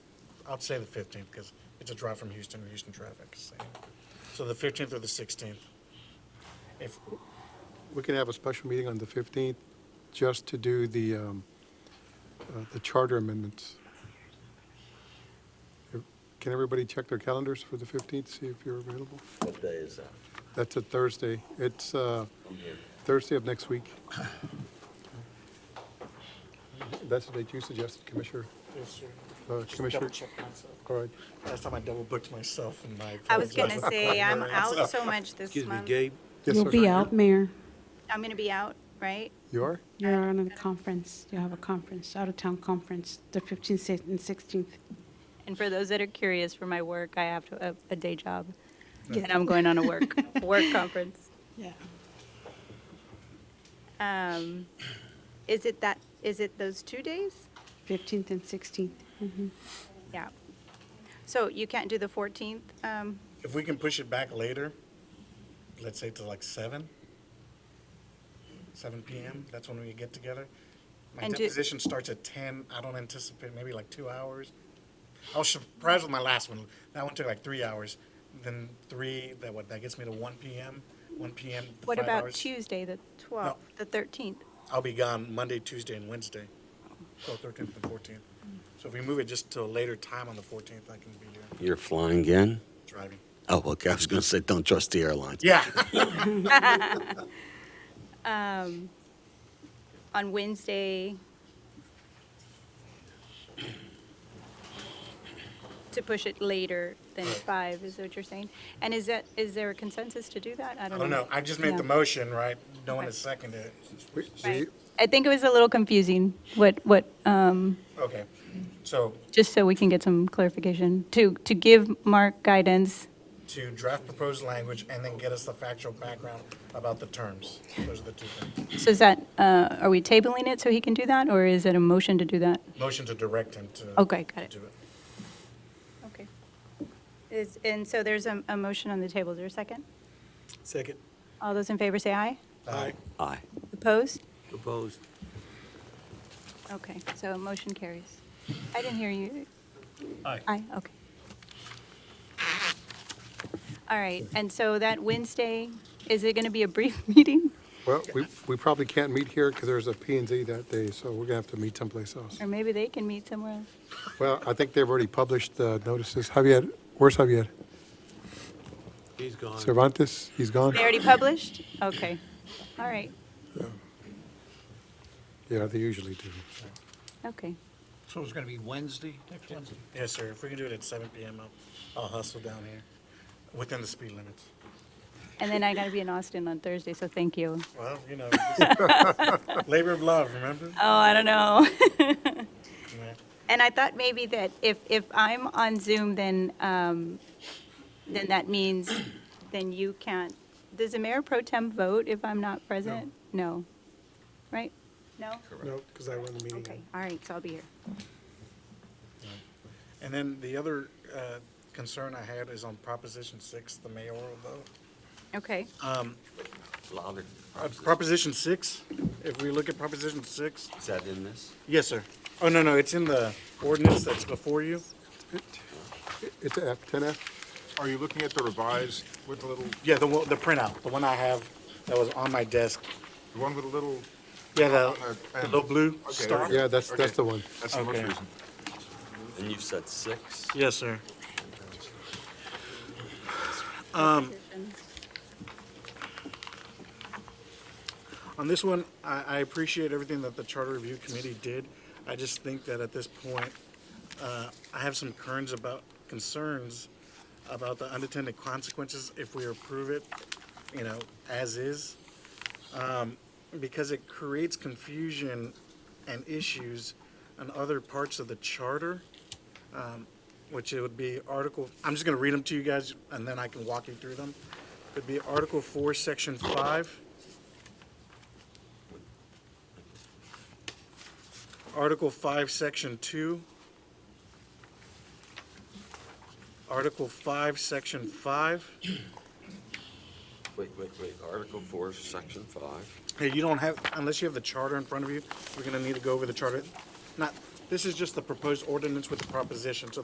I'd say the 15th because it's a drive from Houston, Houston traffic. is same. So the 15th or the 16th. If, We can have a special meeting on the 15th just to do the, um, uh, the charter amendments. Can everybody check their calendars for the 15th, see if you're available? What day is that? That's a Thursday. It's uh, Thursday of next week. That's the date you suggested, Commissioner. Uh, Commissioner- double check myself. All right. Last time I double booked myself and I. I was gonna apologize. say, I'm out so much this Excuse me, month. Gabe, Yes, You'll sir. be out, Mayor. I'm gonna be out, right? You are? You're on a conference. You have a conference, out-of-town conference, the 15th and 16th. And for those that are curious, for my work, I have uh, to- a, a day job. And I'm going on a work, work conference. Yeah. Um, is it that, is it those two days? 15th and 16th. Mhm. Yeah. So you can't do the 14th? Um, If we can push it back later, let's say to like 7, 7 PM, that's when we get together. My And do- deposition starts at 10. I don't anticipate, maybe like two hours. I was surprised with my last one. That one took like three hours. Then three, that what, that gets me to 1 PM, 1 PM, to what five about hours. Tuesday, the 12th, the 13th? I'll be gone Monday, Tuesday, and Wednesday, so 13th and 14th. So if we move it just to a later time on the 14th, I can be here You're flying again? driving. Oh, okay, I was gonna say, don't trust the airlines. Yeah. Um, on Wednesday, to push it later than five, is what you're saying? And is that, is there a consensus to do that? I I don't know. don't know, Oh, I just made the Yeah. motion, right? No one Um, Okay. has seconded it. We- Right. I think it was a little confusing, what, what, um, Okay, so just so we can get some clarification, to, to give Mark guidance. to draft proposed language and then get us the factual background about the terms. Those are the two things. So is that, uh, are we tabling it so he can do that, or is it a motion to do that? Motion to direct him to. Oh, Okay, got it. Do it. Okay. Is, and so there's a, a motion on the table. Is there a second? second, All those in favor say aye. Aye. Aye. Opposed? opposed. Okay, so motion carries. I didn't hear you. Aye. Aye, okay. All right, and so that Wednesday, is it going to be a brief meeting? Well, we, we probably can't meet here because there's a P and Z that day, so we're gonna have to meet someplace else. Or maybe they can meet somewhere else? Well, I think they've already published the notices. Javier, where's Javier? He's gone. Cervantes, he's gone? They already published? Okay, all right, Yeah, they usually do. okay. So it's going to be Wednesday, next Wednesday? Uh, Yes, sir, if we can do it at seven PM, I'll, I'll hustle down here, within the speed limits. And then I got to be in Austin on Thursday, so thank you. Well, you know, labor of love, remember? Oh, I don't know. Yeah. And I thought maybe that if, if I'm on Zoom, then, um, then that means, then you can't, does the mayor pro tem vote if I'm not present? No. Right? No? No, because I run the Okay, all right, so I'll be here. And then the other uh, concern I had is on Proposition 6, the mayoral vote. Okay, Louder. Uh, Proposition 6, if we look at Proposition 6, Is that in this? yes, sir. Oh, no, no, it's in the ordinance that's before you. It's a F, 10F? Are you looking at the revised with the little, Yeah, the one- the printout, the one I have that was on my desk. the one with the little? Yeah, the Uh, the and- little blue Okay, star. okay. Yeah, that's, that's the one. That's the most Okay. recent. And you've said six? Yes, sir. Um, On this one, I, I appreciate everything that the Charter Review Committee did. I just think that at this point, uh, I have some concerns about, concerns about the unintended consequences if we approve it, you know, as is. Um, Because it creates confusion and issues on other parts of the charter which it would be Article, I'm just going to read them to you guys, and then I can walk you through them. It'd be Article 4, Section 5. Article 5, Section 2. Article 5, Section 5. Wait, wait, wait, Article four, section five. Hey, you don't have, unless you have the charter in front of you, we're going to need to go over the charter. Not, this is just the proposed ordinance with the proposition, so